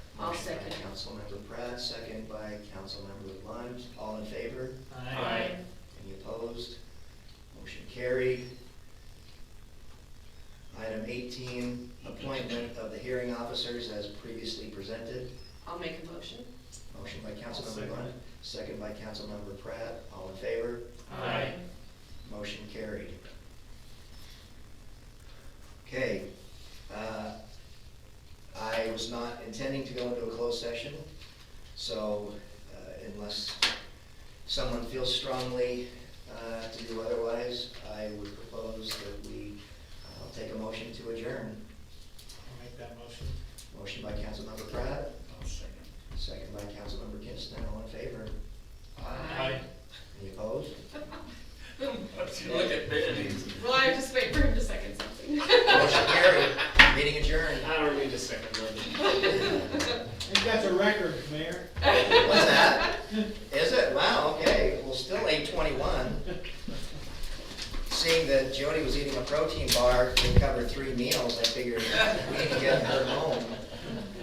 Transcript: I'll Motion by second. Councilmember Pratt, second by Councilmember Lund. All in favor? Aye. Any opposed? Motion carried. Item eighteen, appointment of the hearing officers as previously presented. I'll make a motion. Motion by I'll Councilmember second Lund, second by Councilmember Pratt. All in favor? Aye. Motion carried. Okay, uh, I was not intending to go into a closed session, so uh, unless someone feels strongly uh, to do otherwise, I would propose that we, I'll take a motion to adjourn. I'll make that motion. Motion by Councilmember Pratt, I'll second. second by Councilmember Kinsler, all in favor? Aye. Any opposed? Look at Benny. Well, I have to wait for him to second something. Motion carried, meeting adjourned. I don't need a second one. think that's a record, Mayor. What's that? Is it? Wow, okay, well, still eight twenty-one. Seeing that Jody was eating a protein bar and covered three meals, I figured we can get her home.